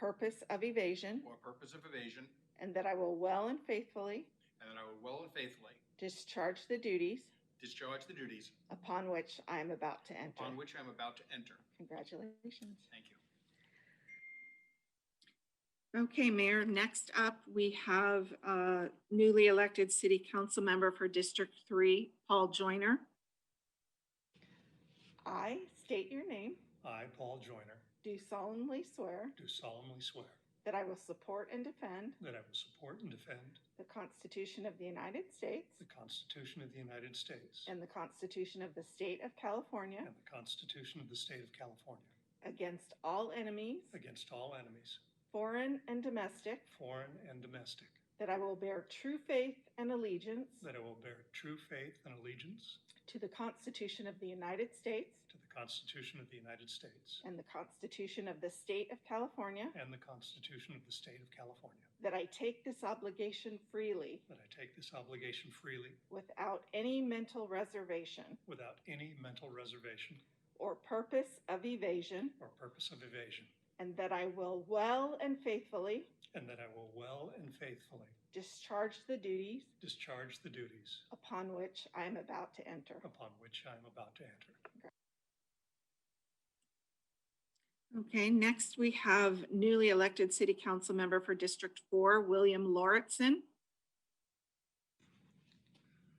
purpose of evasion, or purpose of evasion, and that I will well and faithfully and that I will well and faithfully discharge the duties discharge the duties upon which I am about to enter. upon which I am about to enter. Congratulations. Thank you. Okay, Mayor, next up, we have uh, newly elected city council member for District Three, Paul Joyner. I state your name, I, Paul Joyner, do solemnly swear do solemnly swear that I will support and defend that I will support and defend the Constitution of the United States the Constitution of the United States and the Constitution of the State of California and the Constitution of the State of California against all enemies, against all enemies, foreign and domestic, foreign and domestic, that I will bear true faith and allegiance that I will bear true faith and allegiance to the Constitution of the United States to the Constitution of the United States and the Constitution of the State of California, and the Constitution of the State of California, that I take this obligation freely that I take this obligation freely without any mental reservation without any mental reservation or purpose of evasion, or purpose of evasion, and that I will well and faithfully and that I will well and faithfully discharge the duties discharge the duties upon which I am about to enter. upon which I am about to enter. Okay, next we have newly elected city council member for District Four, William Lauritsen.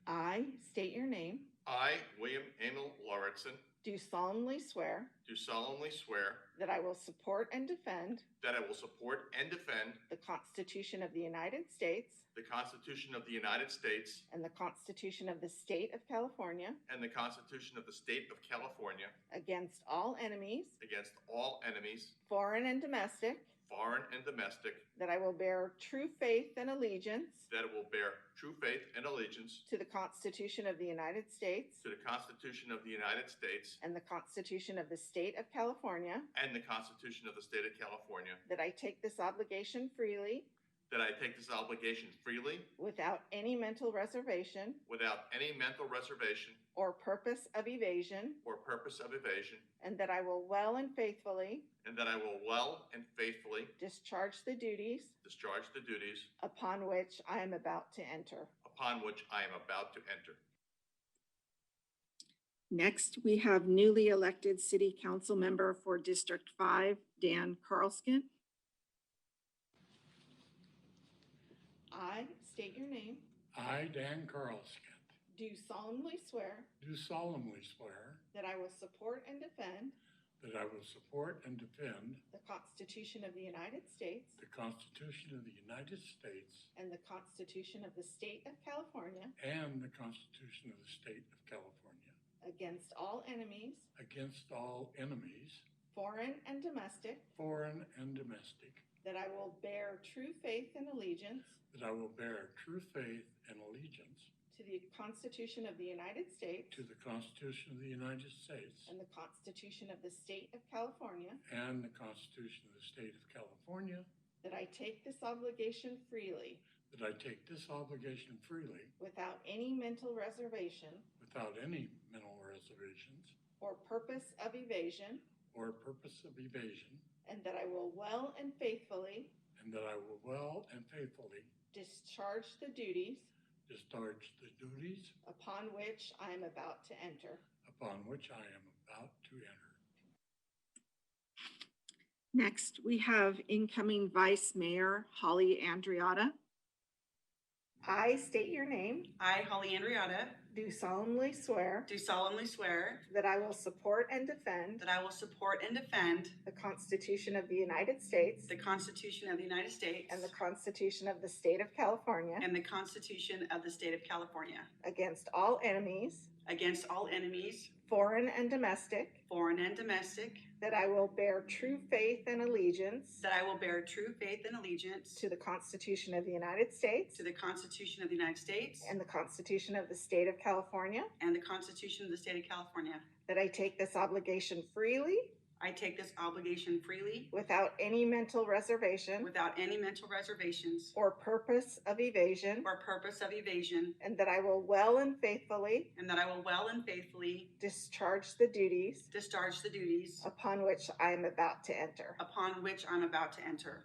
I state your name, I, William Emil Lauritsen, do solemnly swear do solemnly swear that I will support and defend that I will support and defend the Constitution of the United States the Constitution of the United States and the Constitution of the State of California and the Constitution of the State of California against all enemies, against all enemies, foreign and domestic, foreign and domestic, that I will bear true faith and allegiance that I will bear true faith and allegiance to the Constitution of the United States to the Constitution of the United States and the Constitution of the State of California, and the Constitution of the State of California, that I take this obligation freely that I take this obligation freely without any mental reservation without any mental reservation or purpose of evasion, or purpose of evasion, and that I will well and faithfully and that I will well and faithfully discharge the duties discharge the duties upon which I am about to enter. upon which I am about to enter. Next, we have newly elected city council member for District Five, Dan Carlskin. I state your name, I, Dan Carlskin, do solemnly swear do solemnly swear that I will support and defend that I will support and defend the Constitution of the United States the Constitution of the United States and the Constitution of the State of California and the Constitution of the State of California against all enemies, against all enemies, foreign and domestic, foreign and domestic, that I will bear true faith and allegiance that I will bear true faith and allegiance to the Constitution of the United States to the Constitution of the United States and the Constitution of the State of California, and the Constitution of the State of California, that I take this obligation freely that I take this obligation freely without any mental reservation without any mental reservations or purpose of evasion, or purpose of evasion, and that I will well and faithfully and that I will well and faithfully discharge the duties discharge the duties upon which I am about to enter. upon which I am about to enter. Next, we have incoming Vice Mayor Holly Andriotta. I state your name, I, Holly Andriotta, do solemnly swear do solemnly swear that I will support and defend that I will support and defend the Constitution of the United States the Constitution of the United States and the Constitution of the State of California and the Constitution of the State of California against all enemies, against all enemies, foreign and domestic, foreign and domestic, that I will bear true faith and allegiance that I will bear true faith and allegiance to the Constitution of the United States to the Constitution of the United States and the Constitution of the State of California, and the Constitution of the State of California. that I take this obligation freely I take this obligation freely without any mental reservation without any mental reservations or purpose of evasion, or purpose of evasion, and that I will well and faithfully and that I will well and faithfully discharge the duties discharge the duties upon which I am about to enter. upon which I'm about to enter.